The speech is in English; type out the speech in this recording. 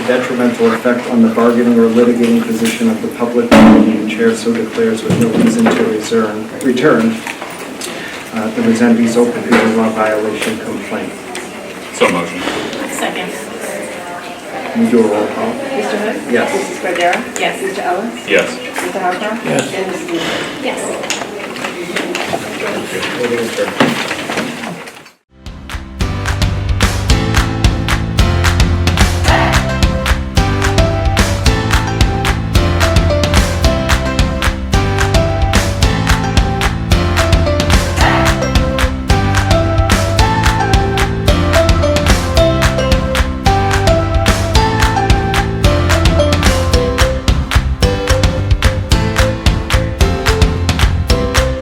detrimental effect on the bargaining or litigating position of the public body, and chair so declares with no reason to return, return, uh, the Resendees open meeting law violation complaint. So motion. Second. Can you do a roll call? Mr. Hood? Yes. Mrs. Cordero? Yes. Mr. Ellis? Yes. Mr. Harper? Yes. And Mrs. Nieto. Yes. Meeting adjourned.